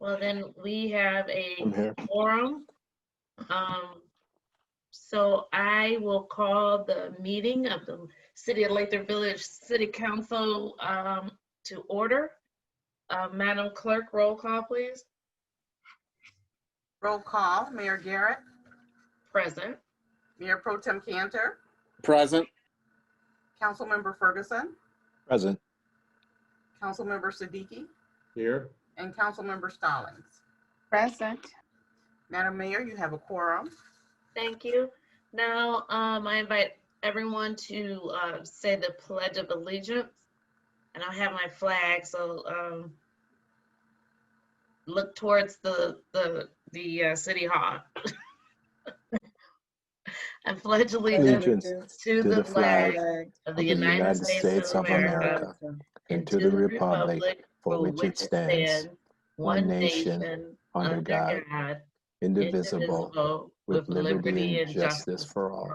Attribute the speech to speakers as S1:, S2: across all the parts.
S1: Well, then we have a
S2: I'm here.
S1: quorum. Um, So I will call the meeting of the City of Lathrop Village City Council um, to order. Uh, Madam Clerk, roll call, please.
S3: Roll call, Mayor Garrett,
S1: Present.
S3: Mayor Pro Tem Cantor,
S4: Present.
S3: Councilmember Ferguson,
S2: Present.
S3: Councilmember Siddiqui,
S4: Here.
S3: and Councilmember Stallings.
S5: Present.
S3: Madam Mayor, you have a quorum.
S1: Thank you. Now, um, I invite everyone to uh, say the Pledge of Allegiance. And I have my flag, so um, look towards the, the, the uh, City Hall. I pledge allegiance
S2: Allegiance
S1: to the flag of the United States of America and to the republic for which it stands, one nation, under God,
S2: indivisible,
S1: indivisible, with liberty and justice for all.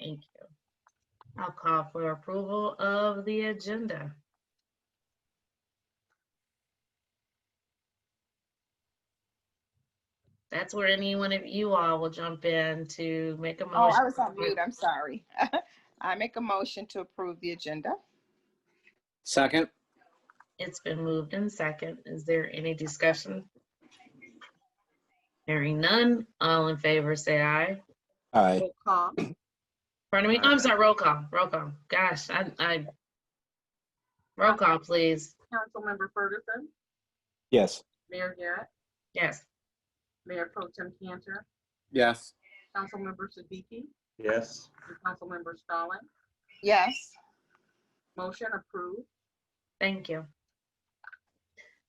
S1: Thank you. I'll call for approval of the agenda. That's where any one of you all will jump in to make a motion.
S5: Oh, I was on mute. I'm sorry. I make a motion to approve the agenda.
S4: Second.
S1: It's been moved in second. Is there any discussion? Hearing none, all in favor, say aye.
S2: Aye.
S3: Roll call,
S1: Pardon me, I'm sorry, roll call, roll call. Gosh, I, I. Roll call, please.
S3: Councilmember Ferguson,
S2: Yes.
S3: Mayor Garrett,
S1: Yes,
S3: Mayor Pro Tem Cantor,
S4: Yes.
S3: Councilmember Siddiqui,
S4: Yes.
S3: and Councilmember Stallings.
S5: Yes.
S3: Motion approved.
S1: thank you.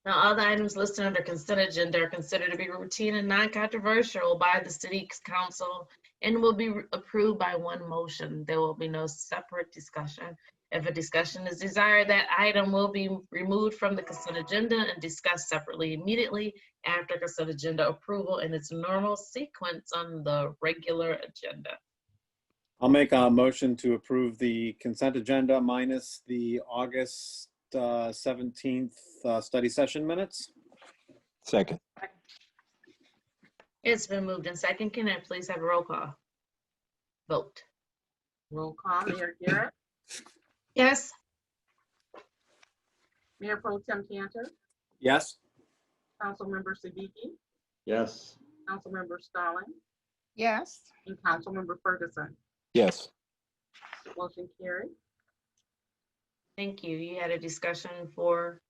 S1: Now, all the items listed under consent agenda are considered to be routine and non-controversial by the city council and will be approved by one motion. There will be no separate discussion. If a discussion is desired, that item will be removed from the consent agenda and discussed separately immediately after consent agenda approval in its normal sequence on the regular agenda.
S4: I'll make a motion to approve the consent agenda minus the August uh, 17th uh, study session minutes.
S2: Second.
S1: It's been moved and second. Can I please have a roll call? Vote.
S3: Roll call, Mayor Garrett,
S1: Yes.
S3: Mayor Pro Tem Cantor,
S4: Yes.
S3: Councilmember Siddiqui,
S4: Yes.
S3: Councilmember Stallings,
S5: Yes.
S3: and Councilmember Ferguson.
S2: Yes.
S3: Motion carried.
S1: Thank you. You had a discussion for,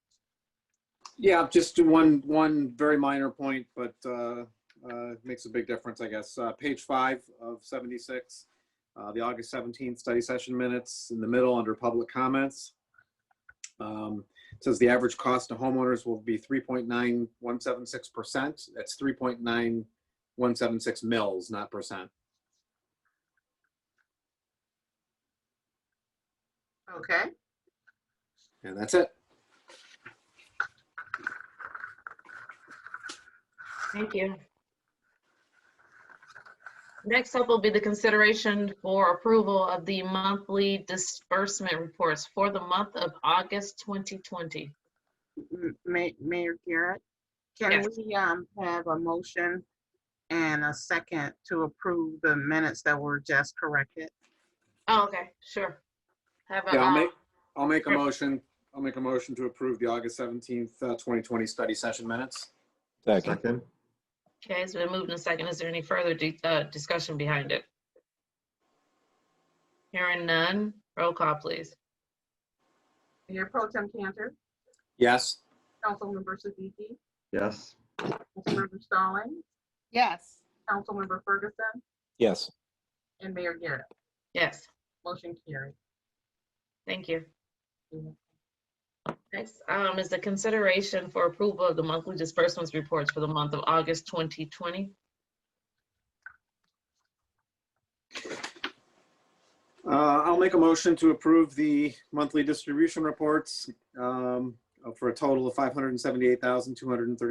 S4: Yeah, just do one, one very minor point, but uh, uh, it makes a big difference, I guess. Uh, Page five of 76, uh, the August 17th study session minutes in the middle under public comments. Um, it Says the average cost to homeowners will be 3.9176%. That's 3.9176 mils, not percent.
S3: Okay.
S4: And that's it.
S1: thank you. Next up will be the consideration for approval of the monthly disbursement reports for the month of August 2020.
S3: M- Ma- Mayor Garrett, can
S1: Yes.
S3: we um have a motion and a second to approve the minutes that were just corrected?
S1: Oh, okay, sure. Have a,
S4: Yeah, I'll
S1: uh,
S4: make, I'll make a
S1: Sure.
S4: motion, I'll make a motion to approve the August 17th, uh, 2020 study session minutes.
S2: Second.
S1: okay, it's been moved in second. Is there any further di- uh, discussion behind it? Hearing none, roll call, please.
S3: Mayor Pro Tem Cantor,
S4: Yes.
S3: Councilmember Siddiqui,
S6: Yes,
S3: Councilmember Stallings,
S5: Yes.
S3: Councilmember Ferguson,
S2: Yes.
S3: and Mayor Garrett.
S1: Yes.
S3: Motion carried.
S1: Thank you.
S3: You're welcome.
S1: Next um, is the consideration for approval of the monthly disbursements reports for the month of August 2020.
S4: Uh, I'll make a motion to approve the monthly distribution reports um, for a total of five hundred and seventy-eight thousand, two hundred and thirty.